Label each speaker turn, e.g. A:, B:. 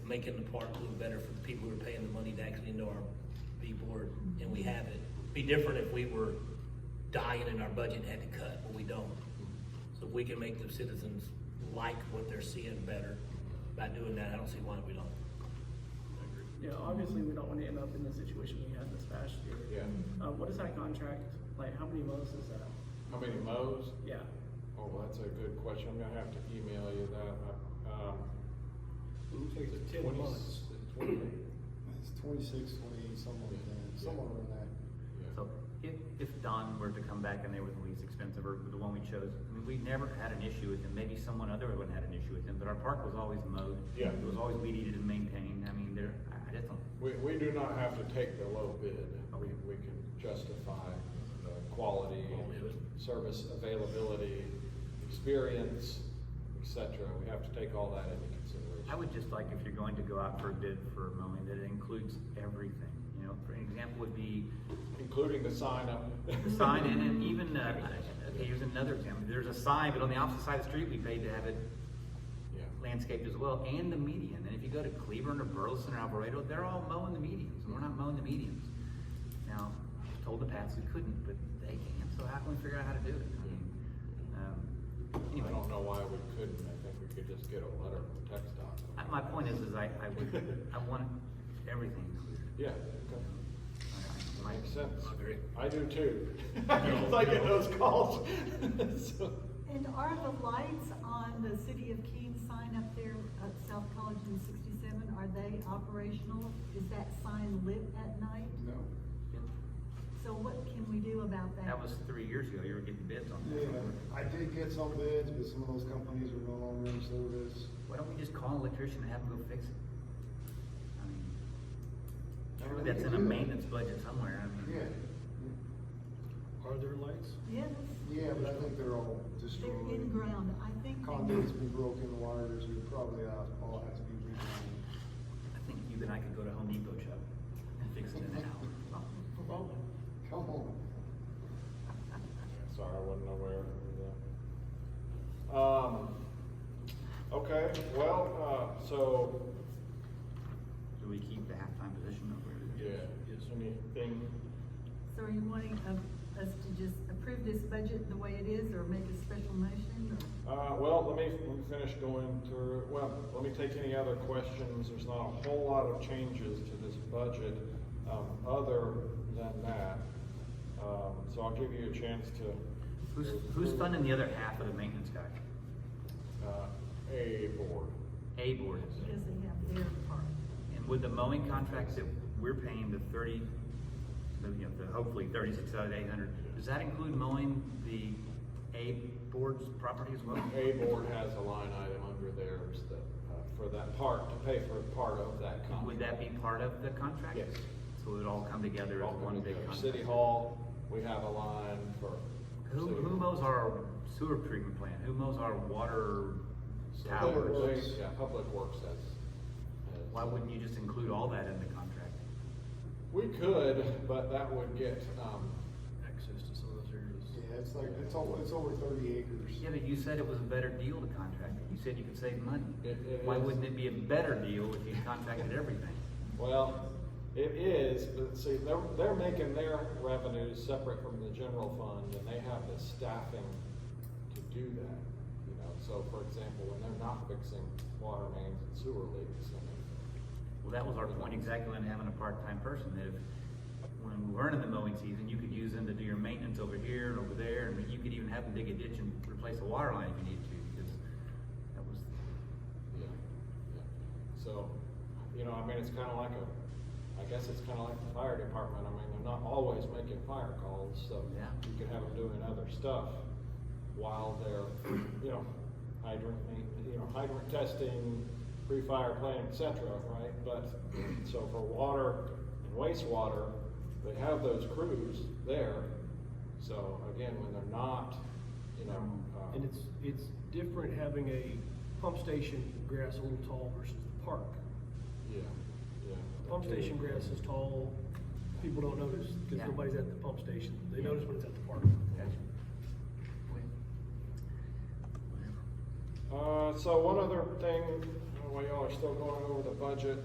A: making the park a little better for the people who are paying the money to actually know our B board, and we have it. Be different if we were dying and our budget had to cut, but we don't. So if we can make the citizens like what they're seeing better by doing that, I don't see why we don't.
B: Yeah, obviously, we don't wanna end up in the situation we had this past year.
C: Yeah,
B: Uh, what is that contract, like, how many months is that?
C: how many mows?
B: Yeah,
C: Oh, well, that's a good question, I'm gonna have to email you that, um.
D: Takes
C: is it
D: ten
C: 20
D: months.
C: Twenty,
D: It's twenty-six, twenty-eight, something like that, somewhere around that.
C: yeah,
E: So if, if Don were to come back and they were the least expensive or the one we chose, I mean, we never had an issue with him. Maybe someone other would have had an issue with him, but our park was always mowed.
C: Yeah.
E: It was always weed eated and maintained. I mean, there, I- I just don't,
C: we, we do not have to take the low bid, we, we can justify the quality, service availability, experience, et cetera, we have to take all that into consideration.
E: I would just like, if you're going to go out for a bid for mowing, that it includes everything. You know, for an example would be
C: Including the sign up.
E: the sign and, and even, uh, okay, here's another example. There's a sign, but on the opposite side of the street, we paid to have it
C: Yeah.
E: landscaped as well, and the median. And if you go to Cleburne or Burleson or Alvarado, they're all mowing the medians, and we're not mowing the medians. Now, I told the past we couldn't, but they can, so how can we figure out how to do it? I mean, um,
C: I
E: Anyway,
C: don't know why we couldn't, I think we could just get a letter from Tech
E: I- Uh, my point is, is I, I would, I want everything included.
C: Yeah, okay.
E: I- I- my-
C: Makes sense.
A: I agree.
C: I do too. Because I get those calls. So,
F: And are the lights on the City of Keene sign up there at South College and sixty-seven, are they operational? Is that sign lit at night?
D: No.
F: So what can we do about that?
E: That was three years ago, you were getting bids on
D: Yeah,
E: that.
D: I did get some bids, but some of those companies are no longer in service.
E: Why don't we just call an electrician and have him go fix it? I mean, surely that's in a maintenance budget somewhere, I mean.
D: Yeah,
G: Are there lights?
F: Yes,
D: yeah, but I think they're all destroyed.
F: they're in ground, I think. they-
D: Conduit's been broken, wires, we probably have, all has to be replaced.
E: I think you and I could go to Home Depot, Chuck, and fix it in an hour.
D: Come on.
C: sorry, I wasn't aware of that. Um, okay, well, uh, so,
E: Do we keep the halftime position over?
C: yeah, is anything,
F: So are you wanting uh, us to just approve this budget the way it is, or make a special motion, or?
C: uh, well, let me, let me finish going through, well, let me take any other questions. There's not a whole lot of changes to this budget, um, other than that. Um, so I'll give you a chance to.
E: Who's, who's funding the other half of the maintenance guy?
C: Uh, a board.
E: A board is.
F: Because they have their part.
E: And with the mowing contracts that we're paying the thirty, the, you know, the hopefully thirty-six out of eight hundred, does that include mowing the A board's property as well?
C: A board has a line item under theirs that, uh, for that part, to pay for part of that contract.
E: Would that be part of the contract?
C: Yes.
E: So it would all come together as
C: All
E: one
C: going
E: big
C: together.
E: contract?
C: City Hall, we have a line for.
E: Who,
C: city-
E: who mows our sewer treatment plant? Who mows our water
C: so Public
E: towers?
C: Works, Yeah, Public Works has. has-
E: Why wouldn't you just include all that in the contract?
C: We could, but that would get, um,
G: Access to some of those areas.
D: Yeah, it's like, it's over, it's over thirty acres.
E: Yeah, but you said it was a better deal to contract it. You said you could save money.
C: It- it
E: Why
C: is.
E: wouldn't it be a better deal if you contracted everything?
C: well, it is, but see, they're, they're making their revenues separate from the general fund, and they have the staffing to do that, you know, so for example, when they're not fixing water mains and sewer leaks, I mean,
E: Well, that was our point exactly in having a part-time person, that if, when we weren't in the mowing season, you could use them to do your maintenance over here and over there, and you could even have them dig a ditch and replace a water line if you needed to, because that was,
C: Yeah, yeah. So, you know, I mean, it's kind of like a, I guess it's kind of like the fire department. I mean, they're not always making fire calls, so
E: Yeah.
C: you could have them doing other stuff while they're, you know, hydrant, ma- you know, hydrant testing, pre-fire plan, et cetera, right? But, so for water and wastewater, they have those crews there. So again, when they're not, you know. uh,
G: Um, And it's, it's different having a pump station grass a little tall versus the park.
C: Yeah, yeah.
G: The Pump station grass is tall, people don't notice,
E: Yeah.
G: because nobody's at the pump station, they
E: Yeah.
G: notice when it's at the park.
E: that's.
C: Uh, so one other thing, while y'all are still going over the budget,